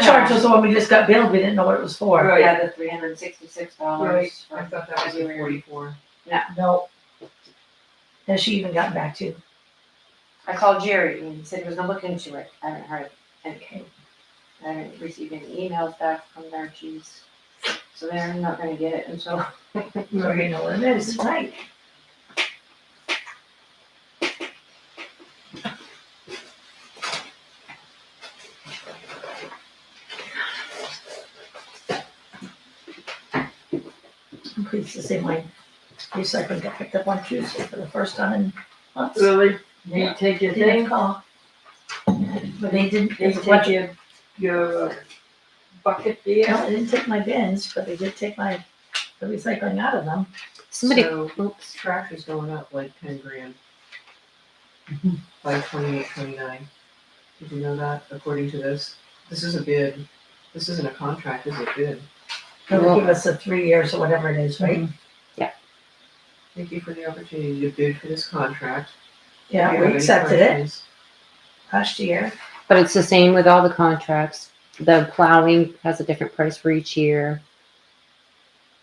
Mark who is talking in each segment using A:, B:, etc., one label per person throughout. A: charge was the one we just got billed, we didn't know what it was for.
B: Right.
C: Yeah, the three hundred and sixty-six
B: Right,
C: dollars.
B: I thought that was the forty-four.
A: No. Has she even gotten back to? you?
C: I called Jerry and he said he was gonna look into it. I haven't heard anything. I haven't received any emails back from their chiefs. So they're not gonna get it until,
A: We already know what it is, right? Please, the same way, recycling got picked up on Tuesday for the first time in months.
B: Really?
A: They
B: take your
A: Didn't call. But they didn't, they didn't
B: your, your bucket
A: No, they didn't take my bins, but they did take my, the recycling out of them.
D: Somebody,
B: So
D: oops.
B: trash is going up like ten grand. By twenty-eight, twenty-nine. Did you know that, according to this? This is a bid. This isn't a contract, this is a bid.
A: They would give us the three years or whatever it is, right?
B: Thank you for the opportunity to bid for this contract. If you
A: Yeah,
B: have
A: we
B: any
A: accepted it
B: questions-
A: last year.
D: But it's the same with all the contracts. The plowing has a different price for each year.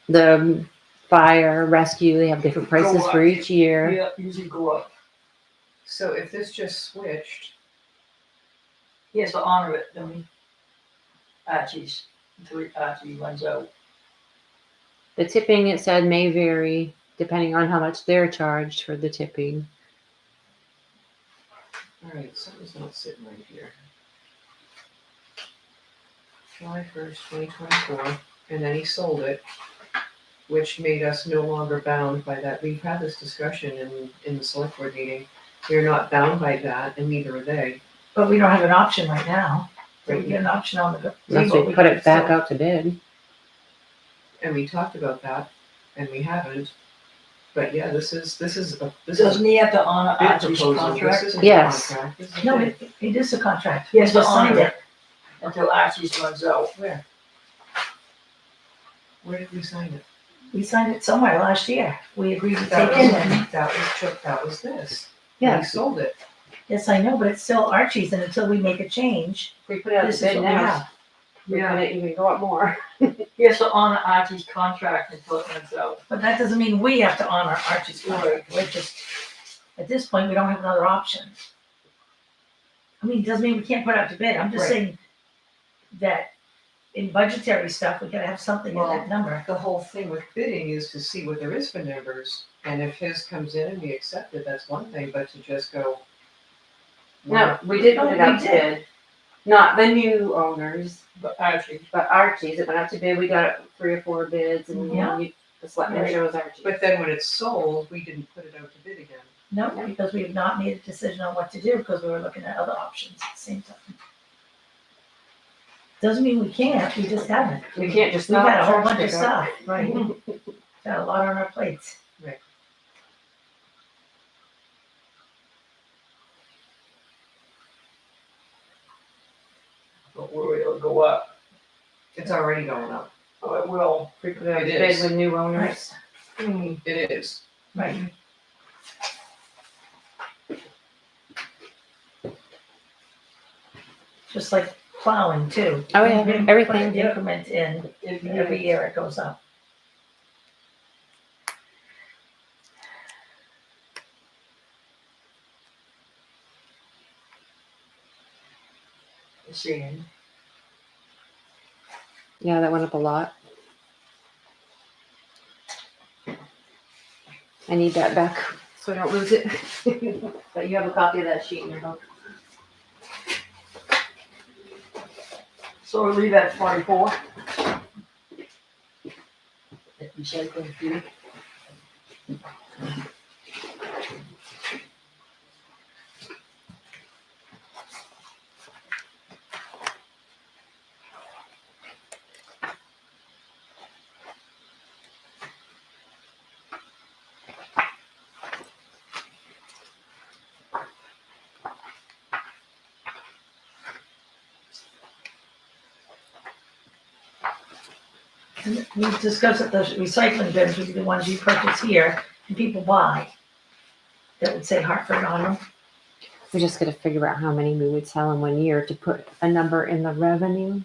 D: The fire rescue, they have different prices for each year.
E: Yeah, usually go up.
B: So if this just switched,
E: He has to honor it, don't he? Archie's, until he- Archie runs out.
D: The tipping, it said, may vary depending on how much they're charged for the tipping.
B: all right, something's not sitting right here. July first, twenty twenty-four, and then he sold it, which made us no longer bound by that. We've had this discussion in, in the select board meeting. We're not bound by that, and neither are they.
A: But we don't have an option right now. So we
B: Right.
A: get an option on the.
D: Unless we put it back out to bid.
B: And we talked about that, and we haven't. But yeah, this is, this is, a this is a
E: Doesn't he have to honor
B: bid
E: Archie's
B: proposal. This
E: contract
B: isn't a
D: Yes.
B: contract. This is a
A: No,
B: bid.
A: it, it is a contract.
E: Yes,
A: We
E: but
A: signed
E: honor
A: it.
E: until Archie's runs out?
B: Where? Where did we sign it?
A: We signed it somewhere last year. We agreed to
B: That
A: take
B: was,
A: it in.
B: that was, Chip- that was this.
D: Yeah.
B: We sold it.
A: Yes, I know, but it's still Archie's and until we make a change,
C: if we put it out
A: This
C: to
A: is
C: bid
A: what we
C: now,
A: have.
C: we're gonna even go up more.
E: He has to honor Archie's contract until it runs out.
A: but that doesn't mean we have to honor Archie's contract. We're just, at this point, we don't have another option. I mean, it doesn't mean we can't put out to bid. I'm just
B: Right.
A: saying that in budgetary stuff, we gotta have something in
B: Well,
A: that number.
B: The whole thing with bidding is to see what there is for numbers, and if his comes in and we accept it, that's one thing, but to just go.
C: No, we did
A: Oh,
C: put it
A: we
C: out to
A: did.
C: bid. Not the new owners,
E: But Archie,
C: but Archie's. It went out to bid. We got three or four bids and
A: Yeah.
C: we- the selectmen
E: Right.
C: chose Archie's.
B: But then when it's sold, we didn't put it out to bid again.
A: No, because we have not made a decision on what to do because we were looking at other options at the same time. Doesn't mean we can't, we just haven't.
C: We can't just
A: We've
C: not.
A: got a whole
C: charge
A: bunch of
C: pickup.
A: stuff, right? Got a lot on our plates.
B: Right.
E: don't worry, it'll go up.
B: It's already going up.
E: Oh, it will.
C: We put it out to
B: It
C: bid
B: is.
C: with new owners.
E: hmm,
B: It is.
A: Right. Just like plowing too.
D: Oh, yeah,
A: We put an
D: everything.
A: Increment in,
E: If-
A: and every year it goes up.
E: if- Seeing.
D: Yeah, that went up a lot. I need that back so I don't lose it.
C: But you have a copy of that sheet in your book.
E: So we leave at forty-four. If you say thank you.
A: And We discussed that the recycling bins would be the ones you purchase here and people buy. That would say Hartford on them.
D: We just gotta figure out how many we would sell in one year to put a number in the revenue.